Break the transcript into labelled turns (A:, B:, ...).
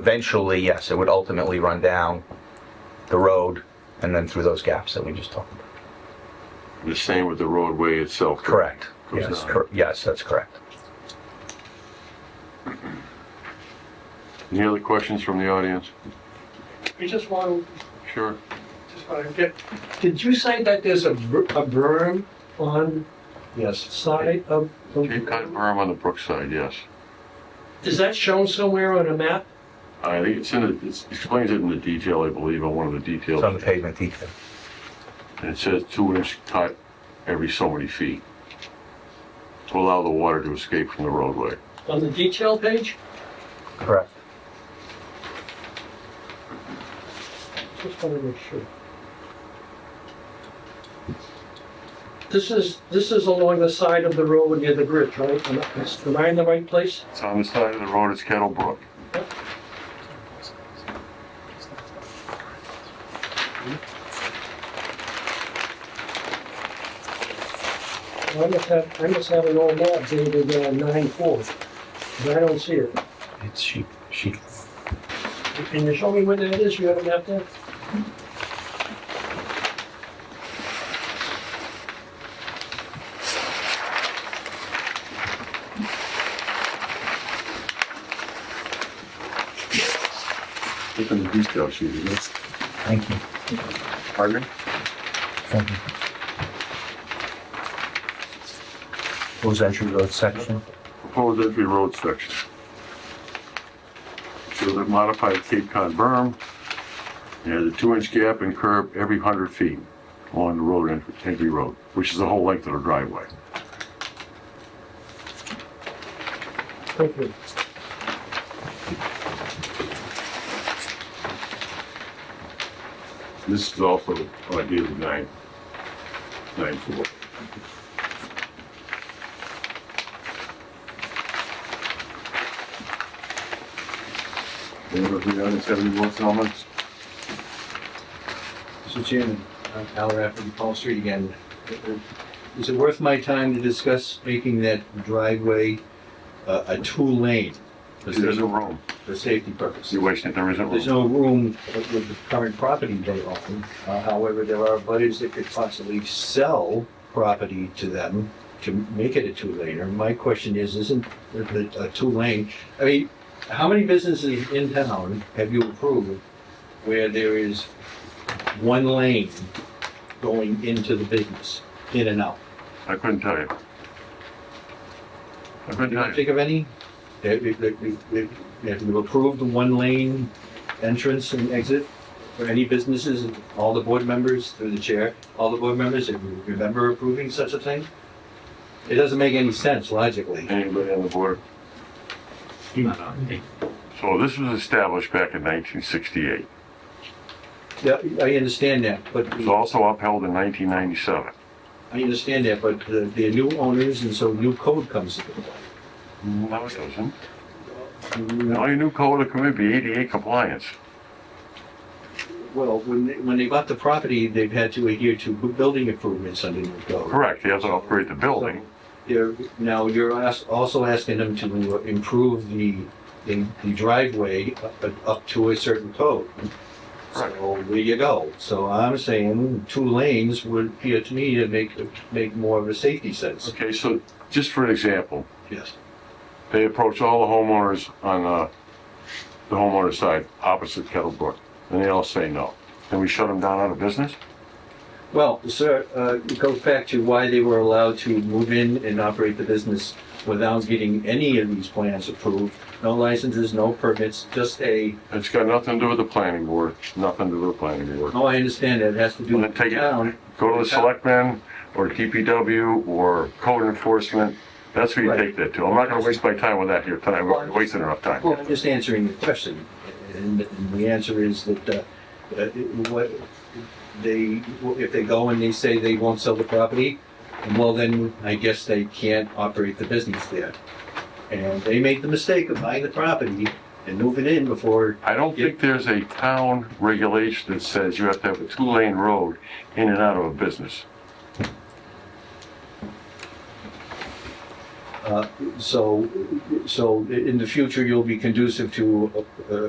A: eventually, yes, it would ultimately run down the road and then through those gaps that we just talked about.
B: The same with the roadway itself.
A: Correct.
B: Goes
A: Yes,
B: down.
A: cor- yes, that's correct.
B: Any other questions from the audience?
C: I just want,
B: Sure.
C: just want to get, did you say that there's a br- a berm on the side of? the-
B: Cape Cod berm on the Brookside, yes.
C: Is that shown somewhere on a map?
B: I think it's in, the- it explains it in the detail, I believe, on one of the details.
A: It's on the pavement detail.
B: And it says two inch cut every so many feet to allow the water to escape from the roadway.
C: On the detail page?
A: Correct.
C: Just want to make sure. This is, this is along the side of the road near the bridge, right? Am I- is- Am I in the right place?
B: It's on the side of the road, it's Kettle Brook.
C: I must have, I must have an old map dated uh, 9/4, but I don't see it.
A: It's sheet, sheet.
C: Can you show me where that is? You have a map there?
B: It's in the detail sheet, isn't it?
A: Thank you.
B: Pardon?
A: Thank you. Those entry road section.
B: Proposed entry road section. So the modified Cape Cod berm, it has a two inch gap and curb every hundred feet along the road, entry- entry road, which is the whole length of the driveway.
C: Thank you.
B: This is also on dated nine, nine four. Anyone from the audience have any more comments?
D: Mr. Chairman, I'm Al Rafferty, Paul Street again. Is it worth my time to discuss making that driveway uh, a two-lane for
B: There's
D: sa-
B: no room.
D: for safety purposes?
B: You're wasting, there isn't
D: There's
B: room.
D: no room with with the current property they own. Uh, However, there are butters that could possibly sell property to them to make it a two-laner. My question is, isn't it a two-lane? I mean, how many businesses in town have you approved where there is one lane going into the business, in and out?
B: I couldn't tell you. I couldn't
D: You
B: tell
D: can
B: you.
D: think of any? That, that, that, that, that you approved the one-lane entrance and exit for any businesses, all the board members, through the chair, all the board members, if you remember approving such a thing? It doesn't make any sense logically.
B: Anybody on the board? So this was established back in nineteen sixty-eight.
D: Yeah, I understand that, but,
B: It was also upheld in nineteen ninety-seven.
D: I understand that, but the, the new owners, and so new code comes into play.
B: No, it doesn't.
D: No,
B: All your new code of commit be ADA compliance.
D: Well, when, they- when they bought the property, they've had to adhere to building improvements under new code.
B: Correct, you have to upgrade the building.
D: You're, now, you're as- also asking them to improve the, the the driveway up- up to a certain code.
B: Correct.
D: So there you go. So I'm saying two lanes would appear to me to make, make more of a safety sense.
B: Okay, so just for an example,
D: Yes.
B: they approached all the homeowners on, uh, the homeowner side, opposite Kettle Brook, and they all say no. Then we shut them down out of business?
D: Well, sir, uh, it goes back to why they were allowed to move in and operate the business without getting any of these plans approved. No licenses, no permits, just a,
B: It's got nothing to do with the planning board, nothing to do with the planning board.
D: oh, I understand that, it has to do
B: Well, then
D: with
B: take it.
D: town.
B: Go to the selectmen, or DPW, or code enforcement, that's where you
D: Right.
B: take that to. I'm not gonna waste my time with that here tonight, we're already wasting enough time.
D: Well, I'm just answering the question, and and the answer is that, uh, uh, what, they, if they go and they say they won't sell the property, well, then I guess they can't operate the business there. And they make the mistake of buying the property and moving in before,
B: I don't think there's a town regulation that says you have to have a two-lane road in and out of a business.
D: uh, so, so in the future, you'll be conducive to, uh,